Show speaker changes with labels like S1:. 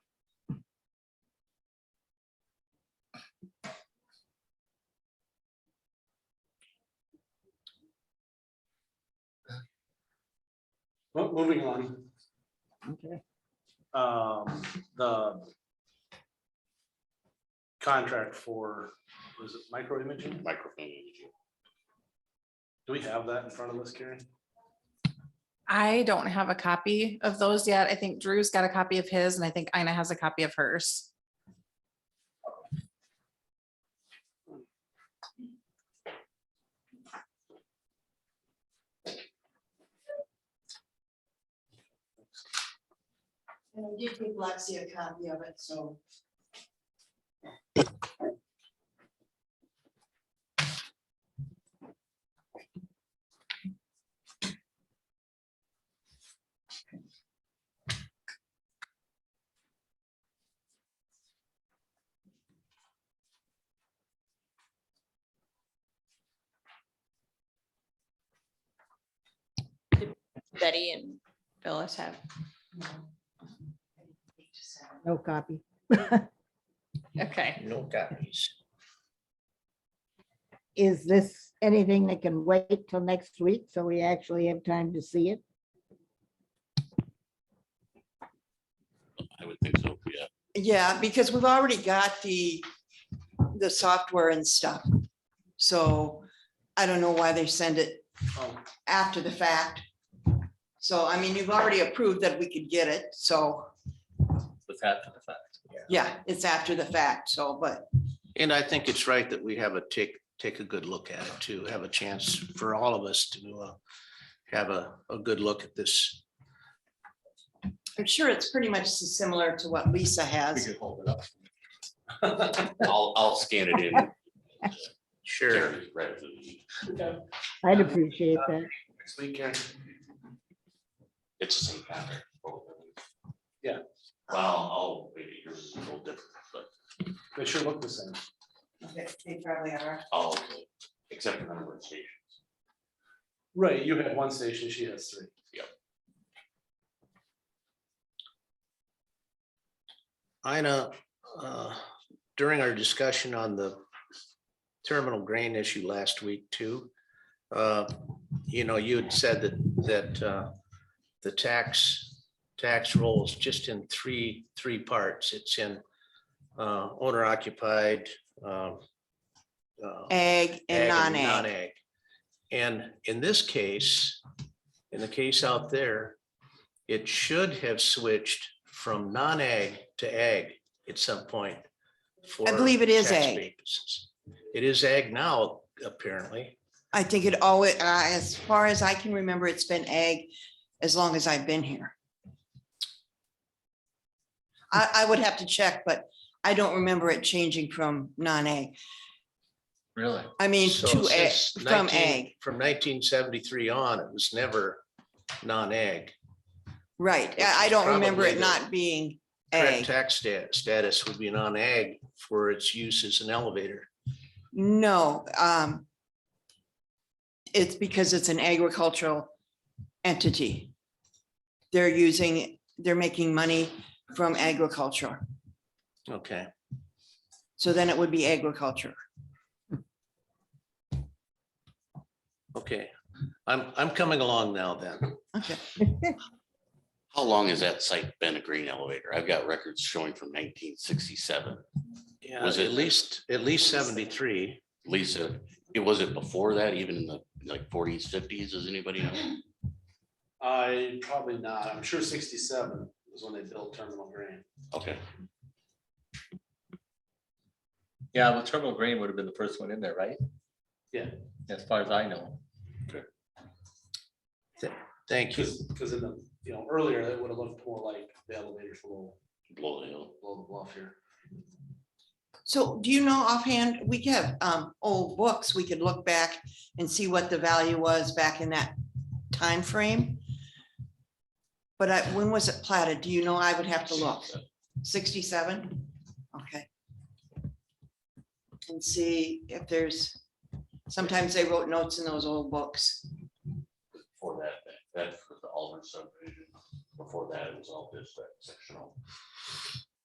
S1: Mo- Oh, Moving on.
S2: Okay.
S1: um, the contract for, was it micro imaging?
S3: microfilm imaging.
S1: Do we have that in front of us, Karen?
S4: I don't have a copy of those yet. I think Drew's got a copy of his and I think Ina has a copy of hers.
S5: And I did give Lexi a copy of it, so.
S6: Betty and Phyllis have.
S5: you know, I think just have it.
S2: No copy.
S6: Okay.
S3: No copies.
S2: Is this anything that can wait till next week so we actually have time to see it?
S3: I would think so, yeah.
S5: Yeah, because we've already got the, the software and stuff. So I don't know why they send it
S1: Oh,
S5: after the fact. So I mean, you've already approved that we could get it, so
S3: With after the fact.
S5: yeah, it's after the fact, so, but
S7: And I think it's right that we have a take, take a good look at it too, have a chance for all of us to uh, have a, a good look at this.
S5: I'm sure it's pretty much similar to what Lisa
S3: We
S5: has.
S3: could hold it up. I'll, I'll scan it in.
S7: Sure.
S3: Right.
S2: I'd
S3: Uh,
S2: appreciate that.
S1: Next week, Karen.
S3: It's the same pattern. both of them.
S1: Yeah.
S3: Well, oh, maybe yours is a little different, but,
S1: They sure look the same.
S5: They probably are.
S3: oh, okay, except for the number of stations.
S1: Right, you have one station, she has three.
S7: Ina, uh, during our discussion on the terminal grain issue last week too, uh, you know, you had said that, that uh, the tax, tax roll is just in three, three parts. It's in uh, owner occupied, um, uh,
S5: Ag and non-ag.
S7: non-ag. And in this case, in the case out there, it should have switched from non-ag to ag at some point.
S5: I believe it is ag.
S7: It is ag now, apparently.
S5: I think it always, uh, as far as I can remember, it's been ag as long as I've been here. I, I would have to check, but I don't remember it changing from non-ag,
S3: Really?
S5: I mean,
S7: So
S5: to ag,
S7: since
S5: from
S7: 19
S5: ag,
S7: From nineteen seventy-three on, it was never non-ag.
S5: right.
S7: which
S5: I I
S7: is
S5: don't remember
S7: probably
S5: it
S7: the
S5: not being
S7: Correct
S5: ag.
S7: tax sta- status would be non-ag for its use as an elevator.
S5: No, um, it's because it's an agricultural entity. They're using, they're making money from agriculture.
S7: Okay,
S5: So then it would be agriculture.
S7: okay. I'm, I'm coming along now then.
S5: Okay.
S3: How long has that site been a green elevator? I've got records showing from nineteen sixty-seven.
S7: Yeah,
S3: Was
S7: at
S3: it-
S7: least, at least seventy-three.
S3: Lisa, it was it before that, even in the like forties, fifties, does anybody know?
S1: I, probably not. I'm sure sixty-seven was when they built terminal grain.
S3: Okay,
S8: Yeah, well, Turbo Grain would have been the first one in there, right?
S1: Yeah.
S8: As far as I know.
S7: Thank you.
S1: Because, because in the, you know, earlier, it would have looked more like the elevators below,
S3: blow the hill.
S1: below the bluff here.
S5: So do you know offhand, we have um old books, we could look back and see what the value was back in that time frame. But I, when was it platted? Do you know? I would have to look. Sixty-seven? Okay. And see if there's, sometimes they wrote notes in those old books.
S3: Before that, that- that was the Alder subdivision. Before that, it was all just that sectional.